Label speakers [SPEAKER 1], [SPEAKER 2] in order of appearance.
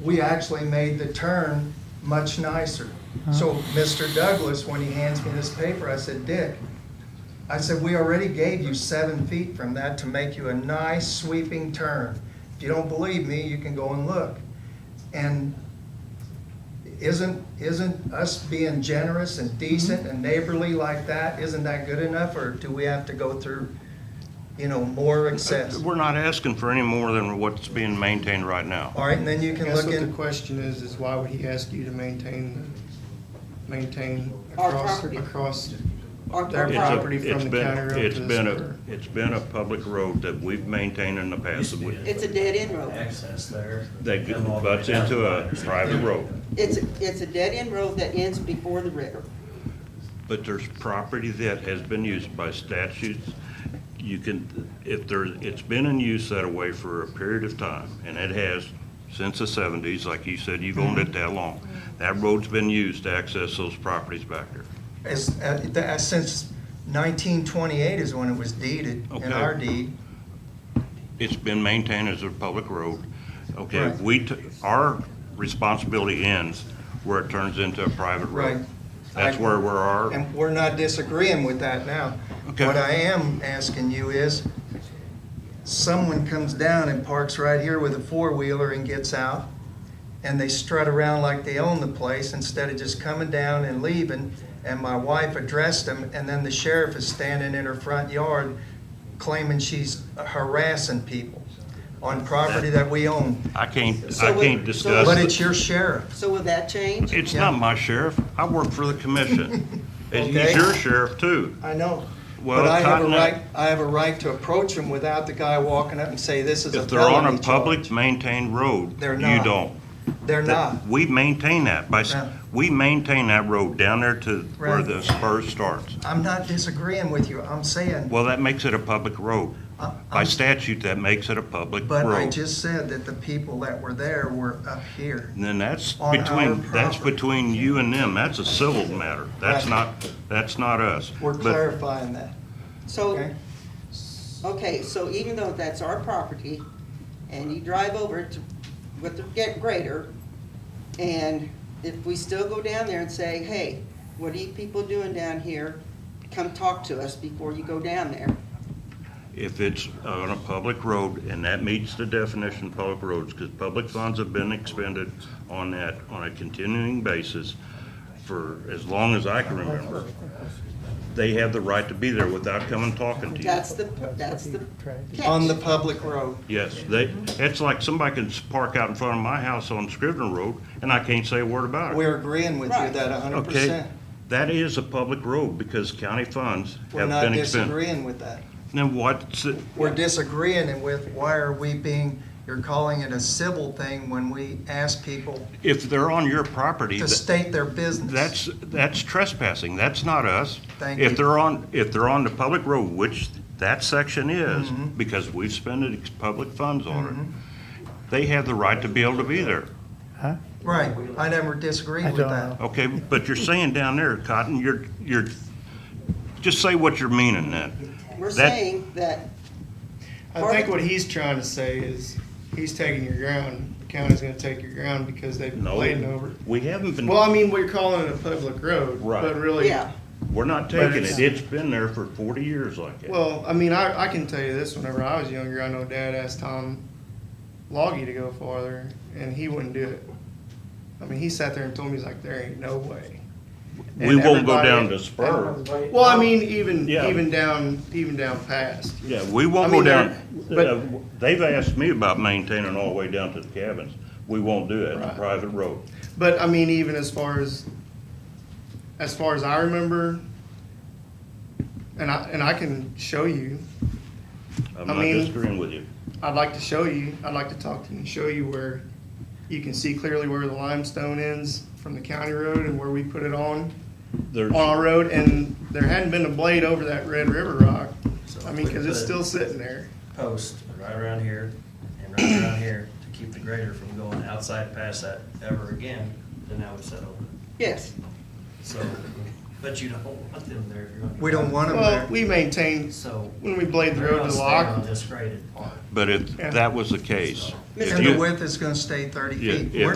[SPEAKER 1] we actually made the turn much nicer. So Mr. Douglas, when he hands me this paper, I said, Dick, I said, we already gave you seven feet from that to make you a nice sweeping turn. If you don't believe me, you can go and look. And isn't, isn't us being generous and decent and neighborly like that, isn't that good enough? Or do we have to go through, you know, more
[SPEAKER 2] Uh,
[SPEAKER 1] excess?
[SPEAKER 3] We're not asking for any more than what's being maintained right now.
[SPEAKER 1] All right, and then you can
[SPEAKER 2] Guess
[SPEAKER 1] look
[SPEAKER 2] what the
[SPEAKER 1] in,
[SPEAKER 2] question is, is why would he ask you to maintain, maintain
[SPEAKER 4] Our
[SPEAKER 2] across,
[SPEAKER 4] property.
[SPEAKER 2] across
[SPEAKER 4] Our
[SPEAKER 2] Their
[SPEAKER 4] our
[SPEAKER 3] It's a-
[SPEAKER 2] property
[SPEAKER 4] property.
[SPEAKER 2] from
[SPEAKER 3] it's
[SPEAKER 2] the
[SPEAKER 3] been-
[SPEAKER 2] county road to
[SPEAKER 3] it's
[SPEAKER 2] the
[SPEAKER 3] been a-
[SPEAKER 2] sewer.
[SPEAKER 3] It's been a public road that we've maintained in the past. that we-
[SPEAKER 4] It's a dead end road.
[SPEAKER 5] access there.
[SPEAKER 3] That
[SPEAKER 5] Come all the way
[SPEAKER 3] butts
[SPEAKER 5] down
[SPEAKER 3] into a
[SPEAKER 5] the line.
[SPEAKER 3] private road.
[SPEAKER 4] It's, a- it's a dead end road that ends before the river.
[SPEAKER 3] But there's property that has been used by statutes. You can, if there, it's been in use that way for a period of time, and it has since the seventies, like you said, you've owned it that long. That road's been used to access those properties back there.
[SPEAKER 1] as, uh, the- uh, since nineteen twenty-eight is when it was deeded, in
[SPEAKER 3] Okay.
[SPEAKER 1] our deed.
[SPEAKER 3] It's been maintained as a public road. Okay,
[SPEAKER 1] Right.
[SPEAKER 3] we, t- our responsibility ends where it turns into a private road.
[SPEAKER 1] Right.
[SPEAKER 3] That's
[SPEAKER 1] I-
[SPEAKER 3] where we're our.
[SPEAKER 1] And we're not disagreeing with that now.
[SPEAKER 3] Okay.
[SPEAKER 1] What I am asking you is, someone comes down and parks right here with a four-wheeler and gets out, and they strut around like they own the place instead of just coming down and leaving, and my wife addressed them, and then the sheriff is standing in her front yard claiming she's harassing people on property that we own.
[SPEAKER 3] I can't, I
[SPEAKER 4] So we-
[SPEAKER 3] can't
[SPEAKER 4] so-
[SPEAKER 3] discuss.
[SPEAKER 1] But
[SPEAKER 3] it.
[SPEAKER 1] it's your sheriff.
[SPEAKER 4] So will that change?
[SPEAKER 3] It's not my sheriff. I work for the commission. And he's
[SPEAKER 1] Okay.
[SPEAKER 3] your sheriff too.
[SPEAKER 1] I know.
[SPEAKER 3] Well,
[SPEAKER 1] But I have a
[SPEAKER 3] Cotton- uh,
[SPEAKER 1] right, I have a right to approach them without the guy walking up and say, this is a
[SPEAKER 3] If they're on a
[SPEAKER 1] felony charge."
[SPEAKER 3] public maintained road,
[SPEAKER 1] They're
[SPEAKER 3] you
[SPEAKER 1] not.
[SPEAKER 3] don't.
[SPEAKER 1] They're not.
[SPEAKER 3] We maintain that by, s-
[SPEAKER 1] No.
[SPEAKER 3] we maintain that road down there to where
[SPEAKER 1] Right.
[SPEAKER 3] the spur starts.
[SPEAKER 1] I'm not disagreeing with you. I'm saying,
[SPEAKER 3] Well, that makes it a public road.
[SPEAKER 1] I-
[SPEAKER 3] By
[SPEAKER 1] I'm-
[SPEAKER 3] statute, that makes it a public
[SPEAKER 1] Um, but I
[SPEAKER 3] road.
[SPEAKER 1] just said that the people that were there were up here.
[SPEAKER 3] And Then that's
[SPEAKER 1] on our
[SPEAKER 3] between, that's
[SPEAKER 1] property.
[SPEAKER 3] between you and them. That's a civil matter. That's
[SPEAKER 1] Right.
[SPEAKER 3] not, that's not us.
[SPEAKER 1] We're
[SPEAKER 3] But-
[SPEAKER 1] clarifying that,
[SPEAKER 4] So,
[SPEAKER 1] okay?
[SPEAKER 4] okay, so even though that's our property, and you drive over to, with the get grader, and if we still go down there and say, hey, what are you people doing down here? Come talk to us before you go down there.
[SPEAKER 3] If it's on a public road, and that meets the definition of public roads, because public funds have been expended on that on a continuing basis for as long as I can remember, they have the right to be there without coming talking to you.
[SPEAKER 4] That's the, that's the catch.
[SPEAKER 1] On the public road.
[SPEAKER 3] Yes, they, it's like somebody can park out in front of my house on Scrivener Road, and I can't say a word about it.
[SPEAKER 1] We're agreeing with you
[SPEAKER 4] Right.
[SPEAKER 1] that hundred
[SPEAKER 3] Okay,
[SPEAKER 1] percent.
[SPEAKER 3] that is a public road because county funds
[SPEAKER 1] We're
[SPEAKER 3] have
[SPEAKER 1] not
[SPEAKER 3] been expended.
[SPEAKER 1] disagreeing with that.
[SPEAKER 3] Then what's, it-
[SPEAKER 1] We're disagreeing with why are we being, you're calling it a civil thing when we ask people
[SPEAKER 3] if they're on your property,
[SPEAKER 1] to
[SPEAKER 3] th-
[SPEAKER 1] state their business.
[SPEAKER 3] That's, that's trespassing, that's not us.
[SPEAKER 1] Thank you.
[SPEAKER 3] If they're on, if they're on the public road, which that section is, because we've spent ex- public funds on it, they have the right to be able to be there.
[SPEAKER 1] Right, I never disagreed
[SPEAKER 6] I
[SPEAKER 1] with
[SPEAKER 6] don't
[SPEAKER 1] that.
[SPEAKER 6] know.
[SPEAKER 3] Okay, but you're saying down there, Cotton, you're, you're, just say what you're meaning then.
[SPEAKER 4] We're
[SPEAKER 3] That-
[SPEAKER 4] saying that,
[SPEAKER 2] I think what he's trying to say is, he's taking your ground, the county's gonna take your ground because they've been laid over. it.
[SPEAKER 3] We haven't been,
[SPEAKER 2] Well, I mean, we're calling it a public road,
[SPEAKER 3] Right.
[SPEAKER 2] but really,
[SPEAKER 4] yeah,
[SPEAKER 3] we're not
[SPEAKER 2] But
[SPEAKER 3] taking
[SPEAKER 2] it's-
[SPEAKER 3] it, it's been there for forty years like that.
[SPEAKER 2] well, I mean, I, I can tell you this, whenever I was younger, I know Dad asked Tom Loggy to go farther, and he wouldn't do it. I mean, he sat there and told me, he's like, there ain't no way.
[SPEAKER 3] We won't go
[SPEAKER 2] everybody-
[SPEAKER 3] down to Spur.
[SPEAKER 2] Well, I mean, even,
[SPEAKER 3] Yeah.
[SPEAKER 2] even down, even down past.
[SPEAKER 3] Yeah, we
[SPEAKER 2] I
[SPEAKER 3] won't go
[SPEAKER 2] mean,
[SPEAKER 3] down,
[SPEAKER 2] they're-
[SPEAKER 3] uh, they've asked me about maintaining all the way down to the cabins. We won't do it, it's a
[SPEAKER 2] Right.
[SPEAKER 3] private road.
[SPEAKER 2] But I mean, even as far as, as far as I remember, and I, and I can show you,
[SPEAKER 3] I'm
[SPEAKER 2] I
[SPEAKER 3] not
[SPEAKER 2] mean-
[SPEAKER 3] disagreeing with you.
[SPEAKER 2] I'd like to show you, I'd like to talk to you and show you where you can see clearly where the limestone ends from the county road and where we put it on,
[SPEAKER 3] There's,
[SPEAKER 2] on our road, and there hadn't been a blade over that Red River rock. I mean, cause it's still sitting there.
[SPEAKER 5] Post right around here and right around here to keep the grader from going outside past that ever again, then that would settle.
[SPEAKER 4] yes.
[SPEAKER 5] So But you don't want them there if you're gonna.
[SPEAKER 1] We don't want them
[SPEAKER 2] Well,
[SPEAKER 1] there.
[SPEAKER 2] we maintain,
[SPEAKER 5] So.
[SPEAKER 2] when we blade the
[SPEAKER 5] they're
[SPEAKER 2] road
[SPEAKER 5] gonna
[SPEAKER 2] to
[SPEAKER 5] stay
[SPEAKER 2] lock,
[SPEAKER 5] On this graded part.
[SPEAKER 3] But if
[SPEAKER 2] Yeah.
[SPEAKER 3] that was the case. if
[SPEAKER 1] And the
[SPEAKER 3] you-
[SPEAKER 1] width is gonna stay thirty
[SPEAKER 3] Yeah,
[SPEAKER 1] feet.
[SPEAKER 3] if
[SPEAKER 1] We're